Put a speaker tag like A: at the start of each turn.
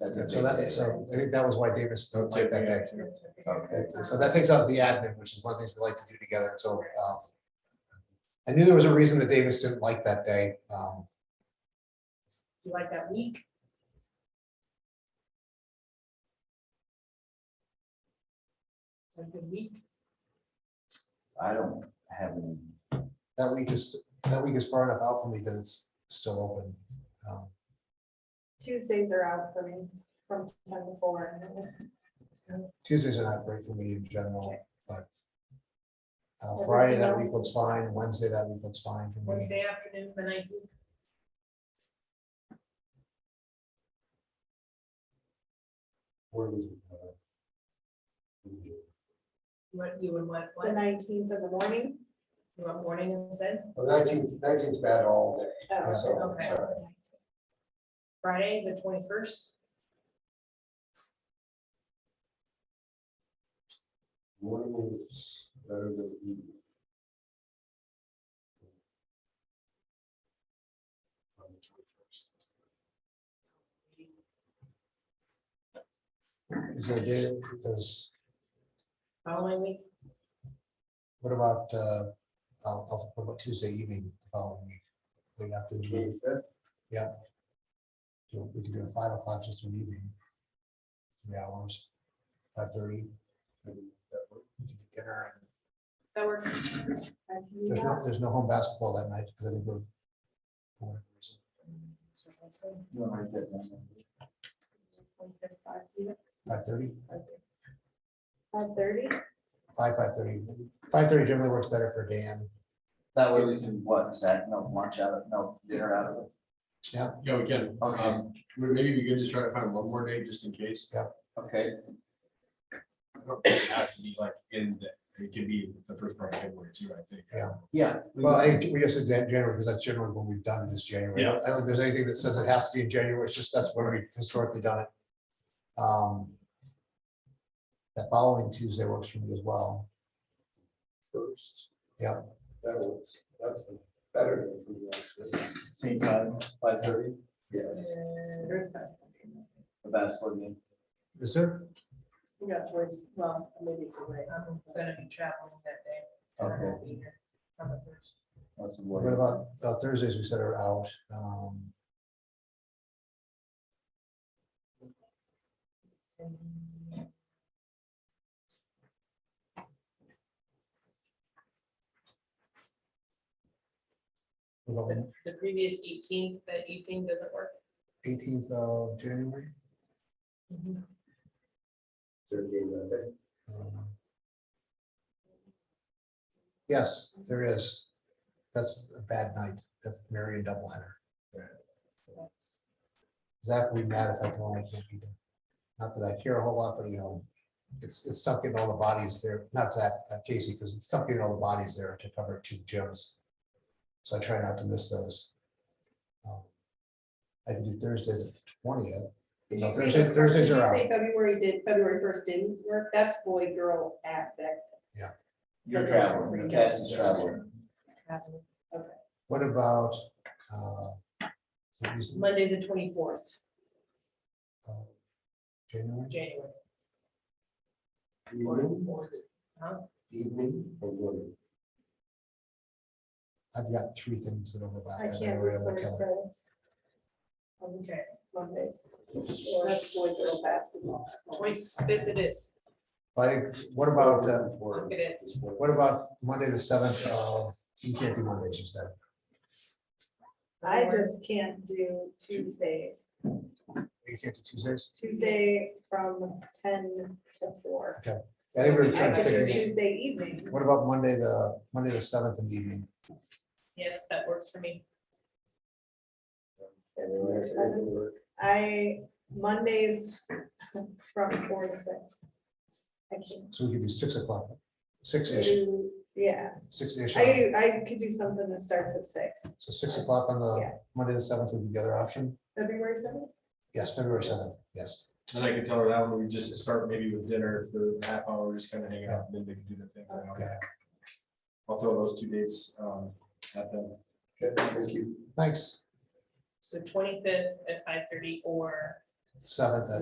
A: That's- So that, so I think that was why Davis don't like that day.
B: Okay.
A: So that takes out the admin, which is one of the things we like to do together, so, um. I knew there was a reason that Davis didn't like that day, um,
C: You like that week? It's a good week.
B: I don't have any,
A: that week is, that week is far enough out for me that it's still open. Um,
D: Tuesdays are out for me from ten to four. and it's-
A: Tuesdays are not great for me in general,
D: Okay.
A: but. Uh,
D: Everything
A: Friday that week
D: else?
A: looks fine, Wednesday that week looks fine for me.
C: Wednesday afternoon, the nineteenth.
A: Or, uh,
C: What you would want,
D: The
C: what,
D: nineteenth in the morning.
C: you want morning instead?
E: Well, nineteenth, nineteenth's bad all day,
D: Oh,
E: so.
C: Okay.
E: sorry.
C: Friday, the twenty-first?
E: Morning is better than E. evening. On the 21st.
A: Is there a day, does,
C: Following week,
A: what about, uh, I'll, I'll, what about Tuesday evening, the following week? Late afternoon,
E: 25th?
A: so we could do a five o'clock, just an evening. Three hours, five thirty. Dinner, and
C: that works.
D: I can do
A: there's no,
D: that.
A: there's no home basketball that night, because I think we're. we're-
B: you don't write that down.
A: Five thirty,
D: Five thirty,
A: five, five thirty, five thirty generally works better for Dan.
B: That way we can, what, is that, no lunch out of, no dinner out of it?
F: Yeah, we can.
B: Okay.
F: Um, we- Maybe we can just try to find one more day just in case.
B: Okay,
F: I don't think It has to be like in, the- it could be the first part of February too, I think.
A: Yeah.
B: yeah. we
A: Well,
B: can-
A: I, we just said Jan- January, because that's generally when we've done this January.
F: Yeah.
A: I don't think there's anything that says it has to be in January, it's just that's when we've historically done it. Um. That following Tuesday works for me as well.
E: First.
A: Yeah.
E: That was, that's the better day for me, actually.
B: Same time, five thirty,
E: Yes.
B: the basketball game.
A: Is there?
C: We got towards, well, maybe it's away. I'm gonna be traveling that day. and I won't be here on the first.
B: What's the
A: What
B: word?
A: about uh, Thursdays we said are out? Um, what about
C: The- The previous eighteenth, the evening doesn't work.
A: eighteenth of January?
E: Third game that day.
A: Um, Yes, there is. That's a bad night. That's the Marion doubleheader. Zach would be mad if I told him I can't be there. Not that I care a whole lot, but you know, it's, it's tough getting all the bodies there, not Zach, uh, Casey, because it's tough getting all the bodies there to cover two gyms. So I try not to miss those. Um, I can do Thursday the twentieth.
D: Did
A: No,
D: you say
A: Thursday-
D: the-
A: Thursdays
D: did you
A: are out.
D: say February did, February first didn't work, that's boy, girl, at that.
B: You're traveling, Cassie's traveling.
C: Traveling.
A: What about? uh, is it recent-
C: Monday, the twenty-fourth,
A: uh, January?
C: January.
E: Evening,
C: Or the- huh?
E: evening, or morning.
A: I've got three things that overlap.
D: I
A: that
D: can't
A: are
D: do
A: on my calendar.
D: Thursdays,
C: Okay,
D: Mondays, or that's boy, girl, basketball.
C: twenty-fifth it is.
A: But I think- what about, uh,
C: Look at it.
A: what about Monday, the seventh? Uh, You can't do Mondays, you said.
D: I just can't do Tuesdays,
A: You can't do Tuesdays?
D: Tuesday from ten to four.
A: I think we were
D: I
A: trying to
D: could do
A: think,
D: Tuesday evening,
A: what about Monday, the, Monday, the seventh in the evening?
C: Yes, that works for me.
D: February seventh. I, Mondays from four to six. I can
A: So we could do six o'clock, six-ish,
D: do, yeah,
A: six-ish.
D: I could, do- I could do something that starts at six,
A: So six o'clock on the,
D: Yeah.
A: Monday, the seventh would be the other option.
D: February seventh.
A: Yes, February seventh, yes.
F: And I can tell her that one, we just start maybe with dinner for a half hour, just kind of hang out, and then they can do their thing. for an hour and a half. I'll throw those two dates um, at them.
E: Thank you.
A: Thanks.
C: So twenty-fifth at five-thirty or
A: Seventh at